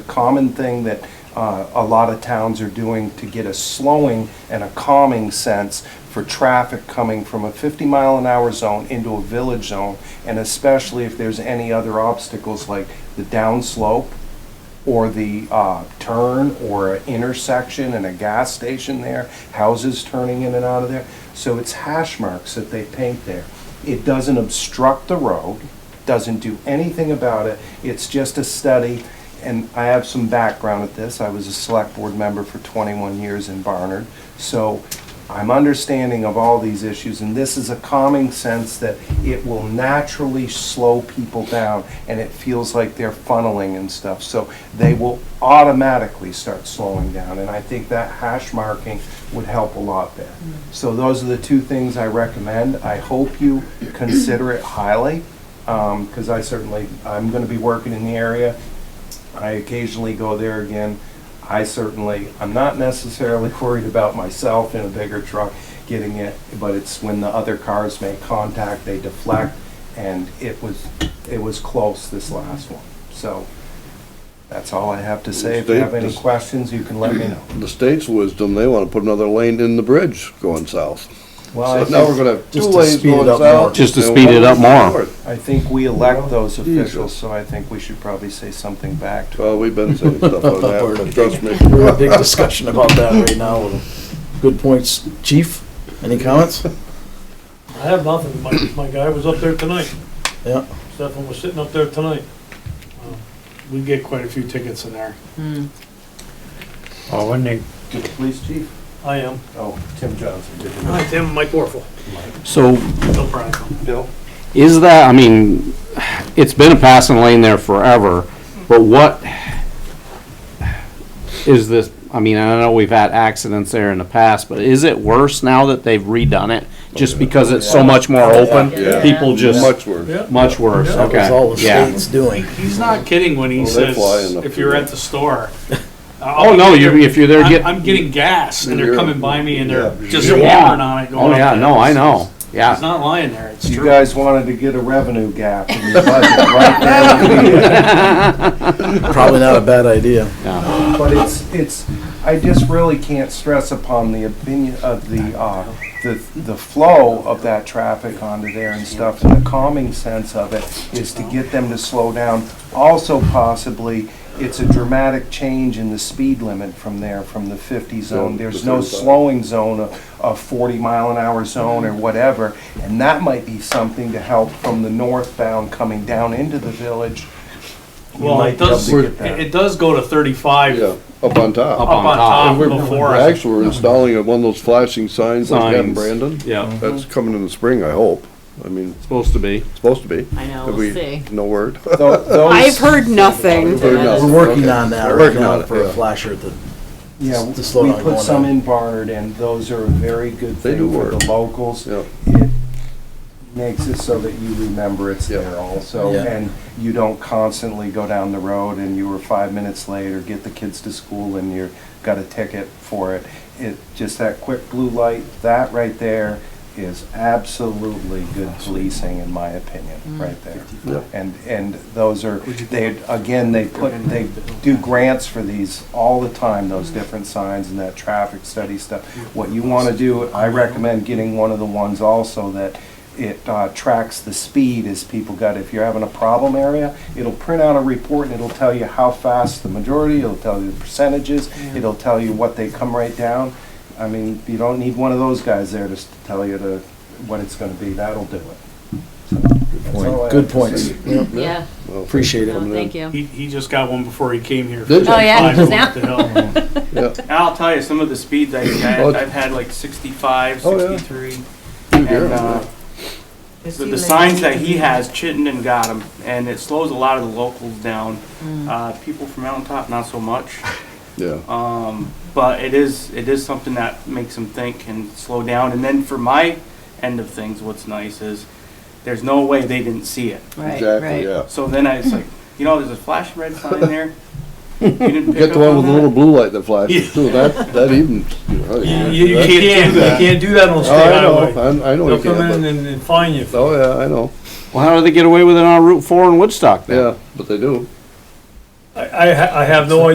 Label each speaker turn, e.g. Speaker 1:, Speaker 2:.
Speaker 1: common thing that uh, a lot of towns are doing to get a slowing and a calming sense for traffic coming from a 50 mile an hour zone into a village zone, and especially if there's any other obstacles like the downslope or the uh, turn or an intersection and a gas station there, houses turning in and out of there. So it's hash marks that they paint there. It doesn't obstruct the road, doesn't do anything about it. It's just a study, and I have some background at this. I was a select board member for 21 years in Barnard. So I'm understanding of all these issues, and this is a calming sense that it will naturally slow people down, and it feels like they're funneling and stuff, so they will automatically start slowing down, and I think that hash marking would help a lot there. So those are the two things I recommend. I hope you consider it highly, because Um, I certainly, I'm gonna be working in the area, I occasionally go there again. I certainly, I'm not necessarily worried about myself in a bigger truck getting it, but it's when the other cars make contact, they deflect, and it was, it was close this last one. So that's all I have to say. If you have any questions, you can let me know.
Speaker 2: The state's wisdom, they want to put another lane in the bridge going south.
Speaker 1: Well, I
Speaker 2: So now we're
Speaker 1: think,
Speaker 2: gonna have two
Speaker 3: Just to
Speaker 2: lanes
Speaker 3: speed it
Speaker 2: going
Speaker 3: up more.
Speaker 2: south.
Speaker 4: Just to
Speaker 2: and
Speaker 4: speed it up
Speaker 2: one going
Speaker 4: more.
Speaker 2: north.
Speaker 1: I think we elect those officials,
Speaker 2: Jesus.
Speaker 1: so I think we should probably say something back to
Speaker 2: Well, we've been saying stuff on
Speaker 3: We're in
Speaker 2: that,
Speaker 3: a big-
Speaker 2: trust me.
Speaker 3: We're in a big discussion about that right now. Good points. Chief, any comments?
Speaker 5: I have nothing. My, my guy was up there tonight.
Speaker 3: Yeah.
Speaker 5: Stefan was sitting up there tonight.
Speaker 6: Um,
Speaker 5: Uh, We get quite a few tickets in there.
Speaker 7: Oh, wouldn't it?
Speaker 1: the police chief.
Speaker 5: I am.
Speaker 1: Oh, Tim Johnson, did you?
Speaker 5: Hi, Tim, Mike Warfel.
Speaker 4: So
Speaker 5: Bill Bronico.
Speaker 1: Bill?
Speaker 4: is that, I mean, it's been a passing lane there forever, but what is this, I mean, I know we've had accidents there in the past, but is it worse now that they've redone it? Just because it's so much more open?
Speaker 2: Yeah.
Speaker 4: People just,
Speaker 2: Much worse.
Speaker 5: Yeah.
Speaker 4: much worse,
Speaker 5: Yeah.
Speaker 3: That was all
Speaker 4: okay,
Speaker 3: the
Speaker 4: yeah.
Speaker 3: state's doing.
Speaker 6: He's not kidding when he
Speaker 2: Well, they fly
Speaker 6: says,
Speaker 2: enough
Speaker 6: if
Speaker 2: to
Speaker 6: you're
Speaker 2: do
Speaker 6: at
Speaker 2: it.
Speaker 6: the store.
Speaker 4: Oh, no, you, if you're there
Speaker 6: I'm,
Speaker 4: getting,
Speaker 6: I'm getting gas and they're
Speaker 2: You're-
Speaker 6: coming by me and they're
Speaker 2: yeah.
Speaker 6: just
Speaker 4: Yeah.
Speaker 6: hammering on it
Speaker 4: oh
Speaker 6: going
Speaker 4: yeah,
Speaker 6: up
Speaker 4: no,
Speaker 6: there.
Speaker 4: I know,
Speaker 6: He's
Speaker 4: yeah.
Speaker 6: not lying there, it's
Speaker 1: You
Speaker 6: true.
Speaker 1: guys wanted to get a revenue gap in your budget right there.
Speaker 3: Probably not a bad idea.
Speaker 1: But it's, it's, I just really can't stress upon the opinion of the, uh, the, the flow of that traffic onto there and stuff, and the calming sense of it is to get them to slow down. Also possibly, it's a dramatic change in the speed limit from there, from the fifty zone. There's no slowing zone, a, a forty mile an hour zone or whatever. And that might be something to help from the northbound coming down into the village. You
Speaker 6: Well,
Speaker 1: might
Speaker 6: it
Speaker 1: be able
Speaker 6: does,
Speaker 1: to
Speaker 6: it
Speaker 1: get that.
Speaker 6: it does go to thirty-five
Speaker 2: Yeah,
Speaker 6: up
Speaker 2: up on top.
Speaker 4: on
Speaker 6: on
Speaker 4: top.
Speaker 6: top
Speaker 2: We're-
Speaker 6: before us.
Speaker 2: Actually, we're installing one of those flashing signs like that in
Speaker 4: Signs.
Speaker 2: Brandon.
Speaker 4: Yeah,
Speaker 2: That's coming in the spring, I hope. I mean, it's
Speaker 4: supposed to be.
Speaker 2: supposed to be.
Speaker 8: I know,
Speaker 2: Have
Speaker 8: we'll
Speaker 2: we-
Speaker 8: see.
Speaker 2: No word.
Speaker 1: Tho- those-
Speaker 8: I've heard nothing.
Speaker 2: We've heard nothing.
Speaker 3: We're working
Speaker 2: Okay.
Speaker 3: on that
Speaker 2: We're
Speaker 3: right
Speaker 2: working on
Speaker 3: now
Speaker 2: it,
Speaker 3: for a
Speaker 2: yeah.
Speaker 3: flasher at the,
Speaker 1: Yeah,
Speaker 3: to slow
Speaker 1: we
Speaker 3: down
Speaker 1: put
Speaker 3: going
Speaker 1: some
Speaker 3: out.
Speaker 1: in Barnard, and those are a very good
Speaker 2: They do
Speaker 1: thing for
Speaker 2: work.
Speaker 1: the locals.
Speaker 2: Yeah.
Speaker 1: It makes it so that you remember it's there also,
Speaker 3: Yeah.
Speaker 1: and you don't constantly go down the road and you were five minutes late or get the kids to school and you're, got a ticket for it. It, just that quick blue light, that right there is absolutely good policing, in my opinion, right there.
Speaker 2: Yeah.
Speaker 1: And, and those are, they, again, they put, they do grants for these all the time, those different signs and that traffic study stuff. What you want to do, I recommend getting one of the ones also that it uh, tracks the speed as people got, if you're having a problem area, it'll print out a report and it'll tell you how fast the majority, it'll tell you the percentages, it'll tell you what they come right down. I mean, you don't need one of those guys there to s- tell you to, what it's going to be, that'll do it.
Speaker 3: good points. Yeah.
Speaker 8: Yeah,
Speaker 2: Well,
Speaker 3: Appreciate it.
Speaker 8: no, thank you.
Speaker 6: He, he just got one before he came here.
Speaker 2: Did you?
Speaker 8: Oh, yeah,
Speaker 6: Five
Speaker 8: because
Speaker 6: up the
Speaker 8: now,
Speaker 6: hill.
Speaker 2: Yeah.
Speaker 9: And I'll tell you, some of the speeds I've
Speaker 2: Oh.
Speaker 9: had, I've had like 65,
Speaker 2: Oh, yeah.
Speaker 9: 63.
Speaker 2: You hear
Speaker 9: And
Speaker 2: 'em,
Speaker 9: uh, the the signs that he has, Chittenden got them, and it slows a lot of the locals down. Uh, People from Mountain Top, not so much.
Speaker 2: Yeah.
Speaker 9: Um, But it is, it is something that makes them think and slow down. And then for my end of things, what's nice is, there's no way they didn't see it.
Speaker 8: right,
Speaker 2: Exactly,
Speaker 8: right.
Speaker 2: yeah.
Speaker 9: So then I was like, you know, there's a flashing red sign there. You didn't pick
Speaker 2: Get
Speaker 9: up
Speaker 2: the one with
Speaker 9: on
Speaker 2: the little
Speaker 9: that?
Speaker 2: blue light that flashes too, that, that even. you know,
Speaker 5: You, you
Speaker 2: that-
Speaker 5: can't, do that. you can't do that on
Speaker 2: Oh,
Speaker 5: state
Speaker 2: I
Speaker 5: highway.
Speaker 2: know, I I know
Speaker 5: They'll
Speaker 2: you
Speaker 5: come in
Speaker 2: can, but,
Speaker 5: and, and fine you.
Speaker 2: oh yeah, I know,
Speaker 4: Well, how do they get away with it on Route Four in Woodstock then?
Speaker 2: yeah, but they do.
Speaker 5: I, I ha- I have no